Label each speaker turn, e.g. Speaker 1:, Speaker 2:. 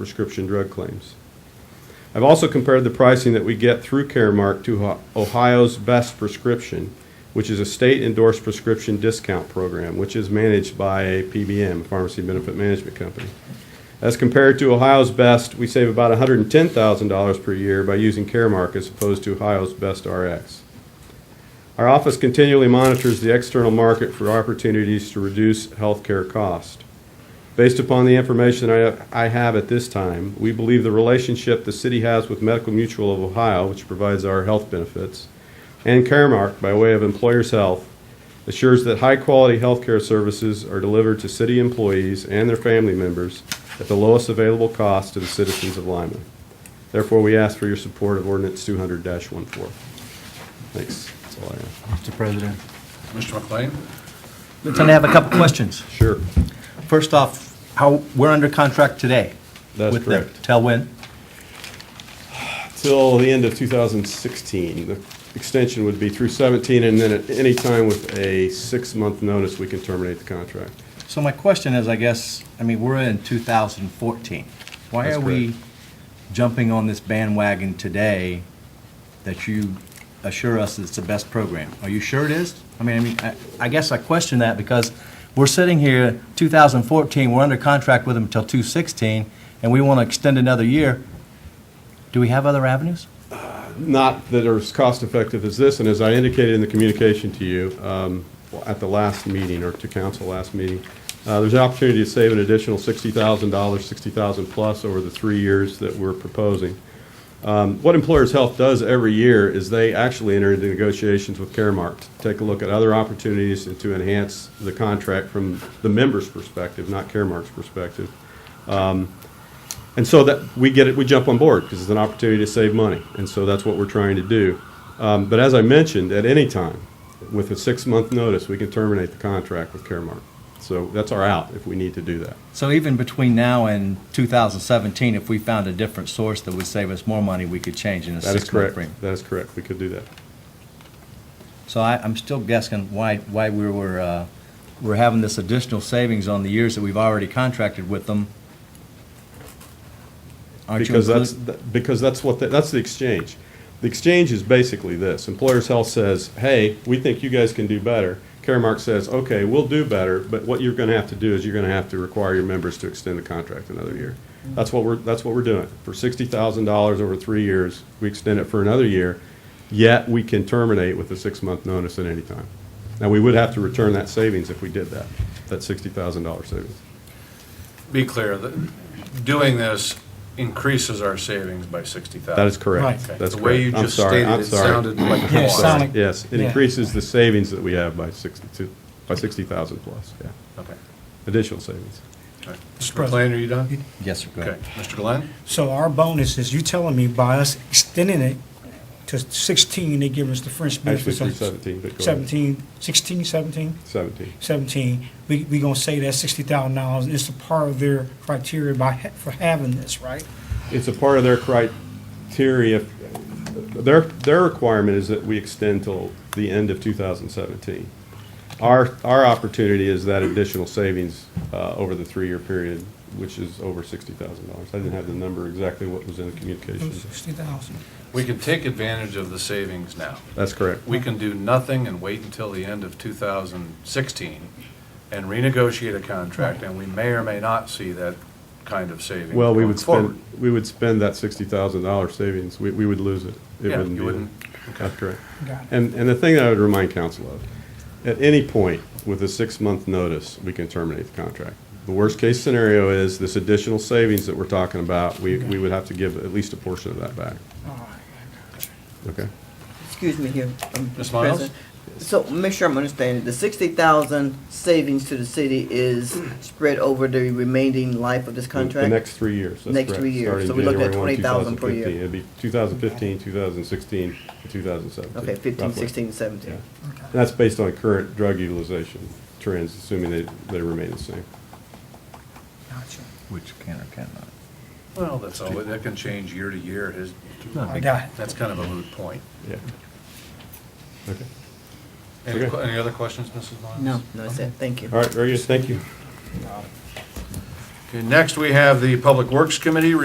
Speaker 1: prescription drug claims. I've also compared the pricing that we get through Caremark to Ho- Ohio's Best Prescription, which is a state-endorsed prescription discount program, which is managed by a PBM, Pharmacy Benefit Management Company. As compared to Ohio's Best, we save about $110,000 per year by using Caremark as opposed to Ohio's Best RX. Our office continually monitors the external market for opportunities to reduce healthcare cost. Based upon the information I I have at this time, we believe the relationship the city has with Medical Mutual of Ohio, which provides our health benefits, and Caremark by way of Employers Health assures that high-quality healthcare services are delivered to city employees and their family members at the lowest available cost to the citizens of Lima. Therefore, we ask for your support of ordinance 200-14. Thanks. That's all I have.
Speaker 2: Mr. President.
Speaker 3: Mr. McLean?
Speaker 2: Lieutenant, I have a couple questions.
Speaker 1: Sure.
Speaker 2: First off, how, we're under contract today.
Speaker 1: That's
Speaker 2: with them.
Speaker 1: correct.
Speaker 2: Till when?
Speaker 1: Till the end of 2016. The extension would be through 17, and then at any time with a six-month notice, we can terminate the contract.
Speaker 2: So my question is, I guess, I mean, we're in 2014. Why
Speaker 1: That's
Speaker 2: are we jumping on this bandwagon today that you assure us it's the best program? Are you sure it is? I mean, I mean, I- I guess I question that because we're sitting here, 2014, we're under contract with them until 2016, and we want to extend another year. Do we have other avenues?
Speaker 1: Not that are as cost-effective as this, and as I indicated in the communication to you um, at the last meeting, or to council last meeting, uh, there's an opportunity to save an additional $60,000, $60,000 plus over the three years that we're proposing. Um, What Employers Health does every year is they actually enter into negotiations with Caremark to take a look at other opportunities and to enhance the contract from the member's perspective, not Caremark's perspective. And so that we get it, we jump on board because it's an opportunity to save money. And so that's what we're trying to do. Um, but as I mentioned, at any time, with a six month notice, we can terminate the contract with Caremark. So that's our out if we need to do that.
Speaker 2: So even between now and 2017, if we found a different source that would save us more money, we could change in a
Speaker 1: That is
Speaker 2: six-month
Speaker 1: correct.
Speaker 2: frame.
Speaker 1: That is correct. We could do that.
Speaker 2: So I, I'm still guessing why, why we were, uh, we're having this additional savings on the years that we've already contracted with them. Aren't you
Speaker 1: Because that's,
Speaker 2: including-
Speaker 1: that- because that's what, the- that's the exchange. The exchange is basically this. Employers Health says, hey, we think you guys can do better. Caremark says, okay, we'll do better, but what you're gonna have to do is you're gonna have to require your members to extend the contract another year. That's what we're, that's what we're doing. For sixty thousand dollars over three years, we extend it for another year, yet we can terminate with a six-month notice at any time. Now, we would have to return that savings if we did that, that sixty thousand dollar savings.
Speaker 3: Be clear, that doing this increases our savings by 60,000.
Speaker 1: That is correct.
Speaker 3: Okay.
Speaker 1: That's
Speaker 3: The way you
Speaker 1: correct. I'm
Speaker 3: just
Speaker 1: sorry.
Speaker 3: stated
Speaker 1: I'm
Speaker 3: it
Speaker 1: sorry.
Speaker 3: sounded like
Speaker 4: Yeah, it
Speaker 3: plus.
Speaker 4: sounded- Sonic.
Speaker 1: Yes, it
Speaker 4: Yeah.
Speaker 1: increases the savings that we have by 62, by 60,000 plus, yeah,
Speaker 3: Okay.
Speaker 1: additional savings.
Speaker 3: All right. Mr.
Speaker 4: Mr.
Speaker 3: McLean, are you done?
Speaker 2: Yes, sir, go
Speaker 3: Okay.
Speaker 2: ahead.
Speaker 3: Mr. Glenn?
Speaker 4: So our bonus is, you telling me by us extending it to 16, they give us the fringe
Speaker 1: Actually,
Speaker 4: benefits
Speaker 1: through
Speaker 4: of
Speaker 1: 17, but go ahead.
Speaker 4: 17, 16, 17?
Speaker 1: 17.
Speaker 4: 17, we, we gonna say that $60,000 is a part of their criteria by, ha- for having this, right?
Speaker 1: It's a part of their criteria, their, their requirement is that we extend till the end of 2017. Our, our opportunity is that additional savings uh, over the three-year period, which is over $60,000. I didn't have the number exactly what was in the communication.
Speaker 4: 60,000.
Speaker 3: We can take advantage of the savings now.
Speaker 1: That's correct.
Speaker 3: We can do nothing and wait until the end of 2016 and renegotiate a contract, and we may or may not see that kind of saving.
Speaker 1: Well, we
Speaker 3: going
Speaker 1: would
Speaker 3: forward.
Speaker 1: spend, we would spend that sixty thousand dollar savings, we, we would lose it. It
Speaker 3: Yeah,
Speaker 1: wouldn't
Speaker 3: you
Speaker 1: be there.
Speaker 3: wouldn't.
Speaker 1: That's correct.
Speaker 4: Got it.
Speaker 1: And, and the thing that I would remind council of, at any point with a six-month notice, we can terminate the contract. The worst-case scenario is this additional savings that we're talking about, we, we would have to give at least a portion of that back,
Speaker 4: All right.
Speaker 1: okay?
Speaker 5: Excuse me here, um,
Speaker 3: Ms. Miles?
Speaker 5: Mr. President. So make sure I'm understanding, the sixty thousand savings to the city is spread over the remaining life of this
Speaker 1: The-
Speaker 5: contract?
Speaker 1: The next three years, that's
Speaker 5: Next
Speaker 1: correct,
Speaker 5: three years.
Speaker 1: starting
Speaker 5: So we looked at
Speaker 1: January 1,
Speaker 5: 20,000 per year.
Speaker 1: 2015. It'd be 2015, 2016, and 2017.
Speaker 5: Okay, fifteen,
Speaker 1: roughly.
Speaker 5: sixteen,
Speaker 1: Yeah.
Speaker 5: seventeen.
Speaker 1: And That's based on current drug utilization trends, assuming they, they remain the same.
Speaker 4: Gotcha.
Speaker 2: Which can or cannot.
Speaker 3: Well, that's all, that can change year to year. His-
Speaker 4: I got it.
Speaker 3: That's kind of a moot point.
Speaker 1: Yeah. Okay.
Speaker 3: Any
Speaker 1: Okay.
Speaker 3: que- any other questions, Mrs. Miles?
Speaker 5: No, no, that's it, thank you.
Speaker 1: All right, very good. Thank you.
Speaker 3: Okay, next we have the Public Works Committee